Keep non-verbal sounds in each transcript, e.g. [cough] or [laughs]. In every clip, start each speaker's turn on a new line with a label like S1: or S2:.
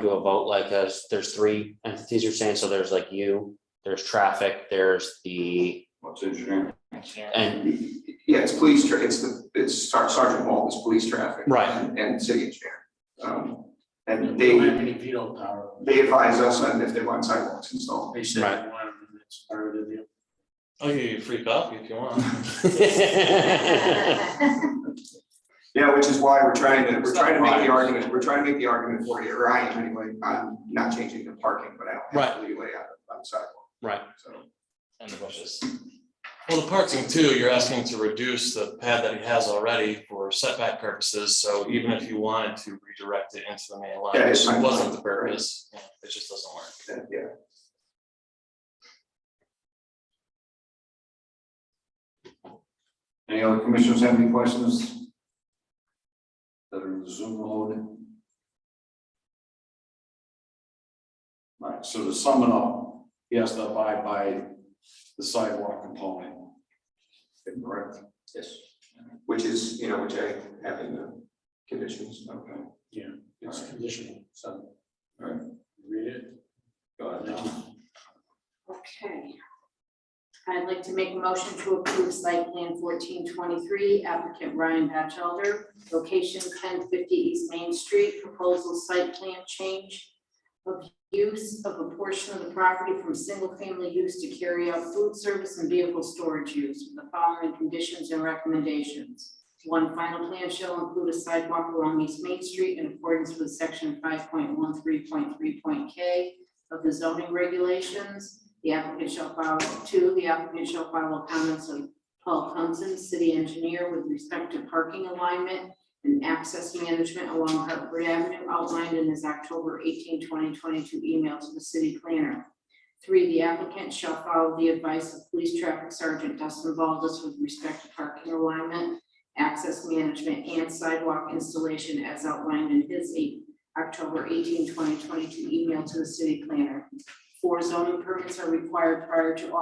S1: do a vote like as there's three entities you're saying, so there's like you, there's traffic, there's the,
S2: What's engineering?
S1: and,
S3: Yeah, it's police, tra- it's the, it's Sar- Sergeant Walt, it's police traffic.
S1: Right. [laughs]
S3: and- And city engineer. Um, and
S4: They have
S3: they,
S4: any veto power.
S3: they advise us on if they want sidewalks installed.
S4: They said
S1: Right.
S4: they want them, and it's part of the deal.
S5: I'll give you a free coffee if you want.
S3: Yeah, which is why we're trying to, we're
S5: It's not
S3: trying to make
S5: right.
S3: the argument, we're trying to make the argument for you, or I am anyway, I'm not changing the parking, but I don't have the leeway on, on the sidewalk.
S1: Right.
S3: So,
S5: And the bushes. Well, the parking too, you're asking to reduce the pad that he has already for setback purposes, so even if you wanted to redirect it into the main
S3: Yeah,
S5: line,
S3: it's
S5: which
S3: fine.
S5: wasn't the purpose, yeah, it just doesn't work.
S3: that- yeah,
S2: Any other commissioners have any questions? That are in the Zoom mode? All Right, so to sum it up, he has to abide by the sidewalk component.
S3: correct.
S2: Yes.
S3: Which is, you know, which I have in the conditions.
S2: Okay,
S4: It's
S2: Alright.
S4: conditional, so.
S2: Alright.
S4: Read it.
S2: go ahead now.
S6: Okay. I'd like to make a motion to approve site plan fourteen twenty-three applicant Ryan Batchelder, location ten fifty East Main Street, proposal site plan change of use of a portion of the property from single-family use to carry out food service and vehicle storage use with the following conditions and recommendations. One, final plan shall include a sidewalk along East Main Street in accordance with section five point one three point three point K of the zoning regulations. The applicant shall file, two, the applicant shall file comments of Paul Thompson, city engineer, with respect to parking alignment and access management along Hartford Avenue outlined in his October 18, 2022 email to the city planner. Three, the applicant shall follow the advice of Police Traffic Sergeant Dustin Baldus with respect to parking alignment, access management, and sidewalk installation as outlined in his eight- October 18, 2022 email to the city planner. Four zoning permits are required prior to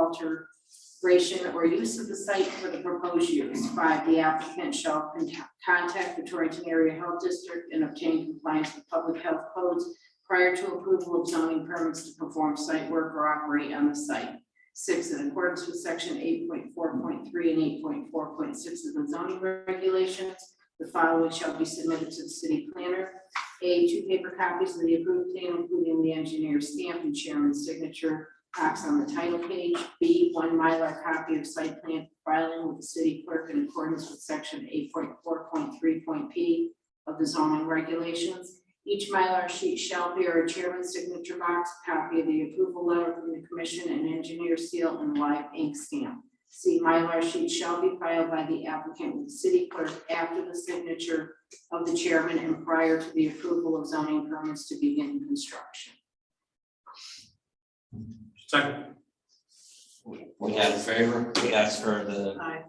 S6: alteration or use of the site for the proposed use. Five, the applicant shall contact- contact the Torrington Area Health District and obtain compliance with public health codes prior to approval of zoning permits to perform site work or operate on the site. Six, in accordance with section eight point four point three and eight point four point six of the zoning regulations, the following shall be submitted to the city planner. A, two paper copies of the approved plan, including the engineer's stamp and chairman's signature box on the title page. B, one Mylar copy of site plan filing with the city clerk in accordance with section eight point four point three point P of the zoning regulations. Each Mylar sheet shall bear a chairman's signature box, copy of the approval letter from the commission and engineer seal and live ink stamp. C, Mylar sheet shall be filed by the applicant with the city clerk after the signature of the chairman and prior to the approval of zoning permits to begin construction.
S4: Second.
S7: We ask favor, we ask for the,
S6: Aye.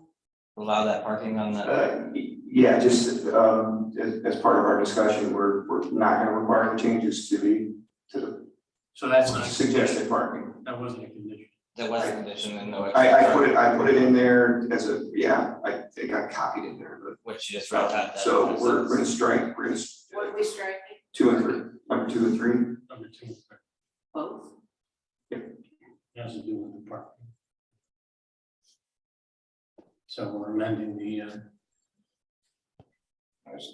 S7: allow that parking on the,
S3: Uh, y- yeah, just, um, as, as part of our discussion, we're, we're not gonna require the changes to the, to
S4: So that's
S3: the
S4: not.
S3: suggested parking.
S4: That wasn't a condition.
S7: that was a condition and no.
S3: I, I
S7: extra
S3: put it, I put it in there as a, yeah, I think I copied in there, but.
S7: Which you just wrote out that.
S3: So we're,
S7: [laughs]
S3: we're gonna strike, we're gonna, s-
S6: What are we striking?
S3: two and three, number two and three,
S4: Number two, it
S6: Both.
S4: has to do with the parking. So we're amending the, uh,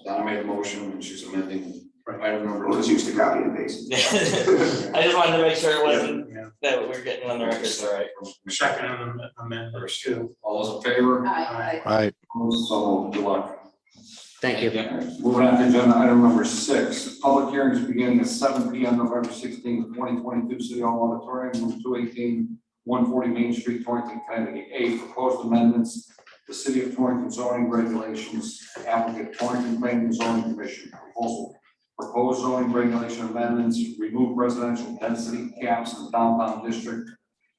S2: Donna made a motion and she's amending item number
S3: we'll just use the copy and paste.
S7: [laughs] I just wanted to make sure it wasn't,
S4: yeah,
S7: that we we're getting on the record, all right.
S4: second amendment, amendment two.
S2: All those in favor?
S6: Aye.
S2: Opposed? So good luck.
S1: thank you.
S2: Moving on to agenda item number six, public hearings begin at seven P M, November sixteenth, twenty twenty-two, City Hall Auditorium, Room 218, 140 Main Street, Torrington, Connecticut. A, proposed amendments, to City of Torrington zoning regulations, applicant Torrington Planning and Zoning Commission, proposal. Proposed zoning regulation amendments, remove residential density caps in downtown district,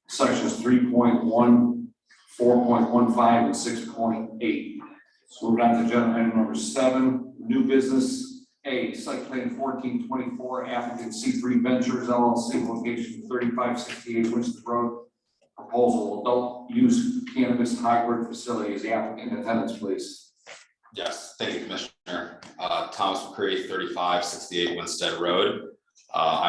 S2: sections 3.1, 4.15, and six point eight. So we're on to agenda item number seven, new business, A, site plan fourteen twenty-four, applicant C three Ventures LLC, location thirty-five sixty-eight Winston Road. Proposal, adult use cannabis hybrid facilities, applicant attendance, please.
S8: Yes, thank you, Commissioner. Uh, Thomas McCray, thirty-five sixty-eight Winstead Road. Uh,